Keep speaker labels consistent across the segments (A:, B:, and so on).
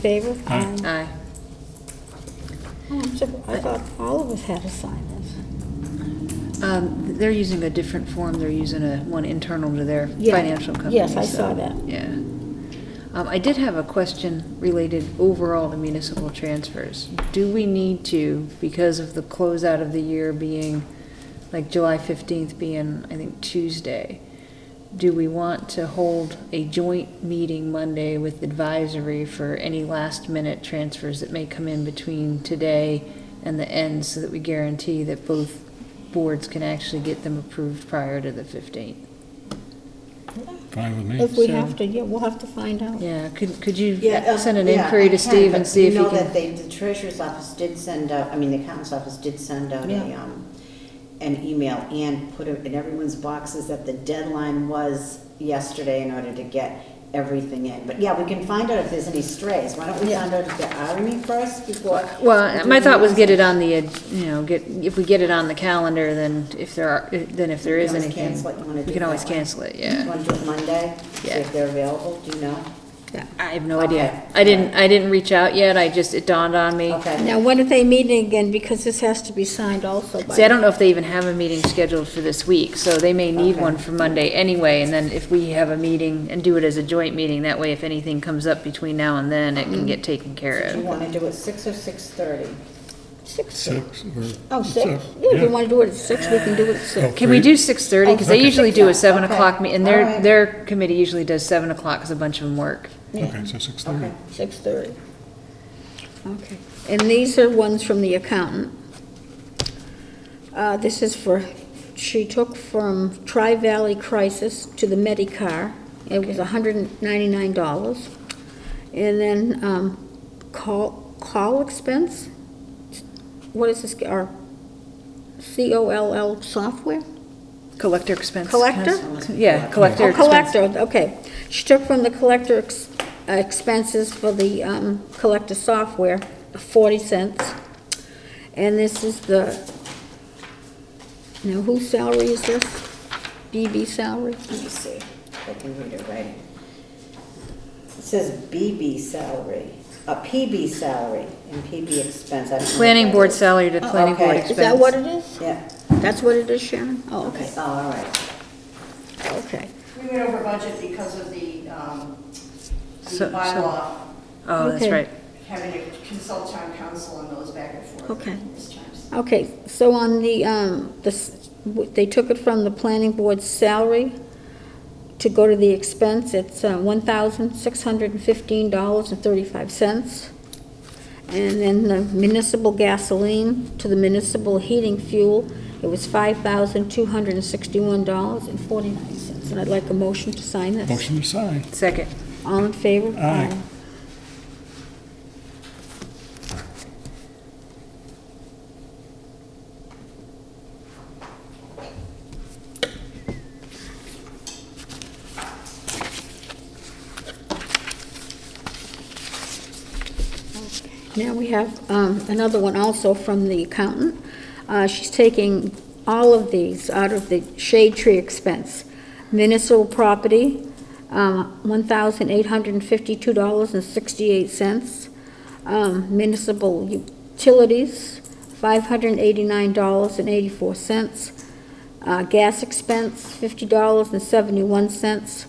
A: Favor?
B: Aye.
C: Aye.
A: Oh, I'm sur- I thought all of us had to sign this.
C: Um, they're using a different form, they're using a, one internal to their
A: Yeah.
C: financial company.
A: Yes, I
C: so,
A: saw that.
C: Yeah. Um, I did have a question related overall to municipal transfers. Do we need to, because of the closeout of the year being, like July fifteenth being, I think, Tuesday, do we want to hold a joint meeting Monday with advisory for any last minute transfers that may come in between today and the end so that we guarantee that both boards can actually get them approved prior to the fifteenth?
B: Fine with me.
A: If we have to, yeah, we'll have to find out.
C: Yeah, could, could you
D: Yeah,
C: send an
D: uh, yeah,
C: inquiry
D: I
C: to
D: can,
C: Steve and
D: but
C: see if he
D: You know
C: can?
D: that they, the treasurer's office did send out, I mean, the accountant's office did send out a,
C: Yeah.
D: um, an email and put it in everyone's boxes that the deadline was yesterday in order to get everything in. But yeah, we can find out if there's any strays. Why don't we find out if there are any first before?
C: Well, my thought was get it on the, uh, you know, get, if we get it on the calendar, then if there are, then if there
D: You
C: is
D: always
C: anything.
D: cancel it. You wanna
C: We
D: do
C: can
D: it
C: always
D: that way.
C: cancel it,
D: You
C: yeah.
D: want to do it Monday? See
C: Yeah.
D: if they're available, do you know?
C: I have no idea. I didn't, I didn't reach out yet, I just, it dawned on me.
D: Okay.
A: Now, when are they meeting again? Because this has to be signed also by.
C: See, I don't know if they even have a meeting scheduled for this week, so they may need
D: Okay.
C: one for Monday anyway, and then if we have a meeting and do it as a joint meeting, that way if anything comes up between now and then, it can get taken care
D: Do you
C: of.
D: want to do it six or six-thirty?
A: Six.
B: Six or.
A: Oh, six? Yeah, if you want to do it at six, we can do it at
B: Oh,
A: six.
C: Can we
B: three.
C: do six thirty? Because they
B: Okay.
C: usually do a seven
D: Okay.
C: o'clock, me- and
D: All
C: their,
D: right.
C: their committee usually does seven o'clock, because a bunch of them work.
B: Okay, so six thirty.
D: Okay.
A: Six thirty. Okay. And these are ones from the accountant. Uh, this is for, she took from Tri-Valley Crisis to the Medicare. It was hundred and ninety-nine dollars. And then, um, call, call expense? What is this, our C-O-L-L software?
C: Collector expense.
A: Collector?
C: Yeah, collector
A: Oh,
C: expense.
A: collector, okay. She took from the collector ex- uh, expenses for the um, collector software, 40 cents. And this is the, now whose salary is this? BB salary?
D: Let me see if I can read it right. It says BB salary, a PB salary and PB expense. I don't know what
C: Planning
D: that
C: board
D: is.
C: salary to
D: Oh,
C: planning board
D: okay.
C: expense.
A: Is that what it is?
D: Yeah,
A: That's what it is, Sharon? Oh,
D: okay,
A: okay,
D: oh, all right.
A: okay.
E: We went over budget because of the, um, the
C: So- so-
E: bylaw,
C: Oh, that's
A: Okay.
C: right.
E: having to consult town council and those back and forth.
A: Okay.
E: numerous times.
A: Okay, so on the, um, this, they took it from the planning board's salary to go to the expense, it's uh, one thousand six hundred and fifteen dollars and thirty-five cents. And then the municipal gasoline to the municipal heating fuel, it was five thousand two hundred and sixty-one dollars and forty-nine cents. And I'd like a motion to sign this.
B: Motion to sign.
C: Second.
A: All in favor?
B: Aye.
A: Now we have um, another one also from the accountant. Uh, She's taking all of these out of the shade tree expense. Municipal property, um, $1,852.68. Um, Municipal utilities, $589.84. Uh, Gas expense, $50.71.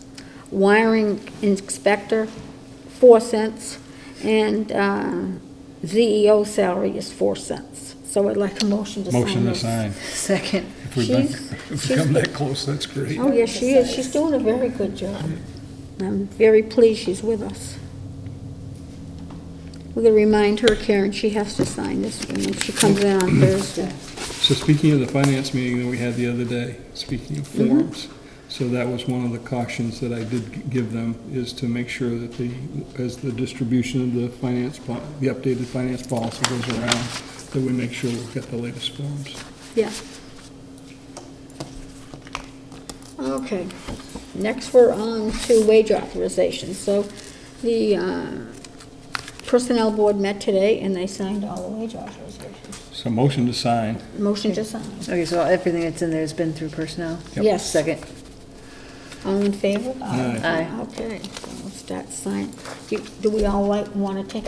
A: Wiring inspector, 4 cents. And um, ZEO salary is 4 cents. So I'd like a motion to sign
B: Motion to
A: this.
B: sign.
C: Second.
B: If we've been,
A: She's-
B: if we've come that close, that's great.
A: Oh, yes, she is. She's doing a very good job. I'm very pleased she's with us. We're going to remind her, Karen, she has to sign this one when she comes in on Thursday.
F: So speaking of the finance meeting that we had the other day, speaking of
A: Mm-hmm.
F: forms, so that was one of the cautions that I did g- give them, is to make sure that the, as the distribution of the finance, po- the updated finance policy goes around, that we make sure we've got the latest forms.
A: Yeah. Okay, next we're on to wage authorization. So the uh, Personnel Board met today and they signed all the wage authorizations.
B: So motion to sign.
A: Motion to sign.
C: Okay, so everything that's in there has been through personnel?
A: Yes.
C: Second.
A: All in favor?
B: Aye.
C: Aye.
A: Okay, so let's start signing. Do do we all like, want to take a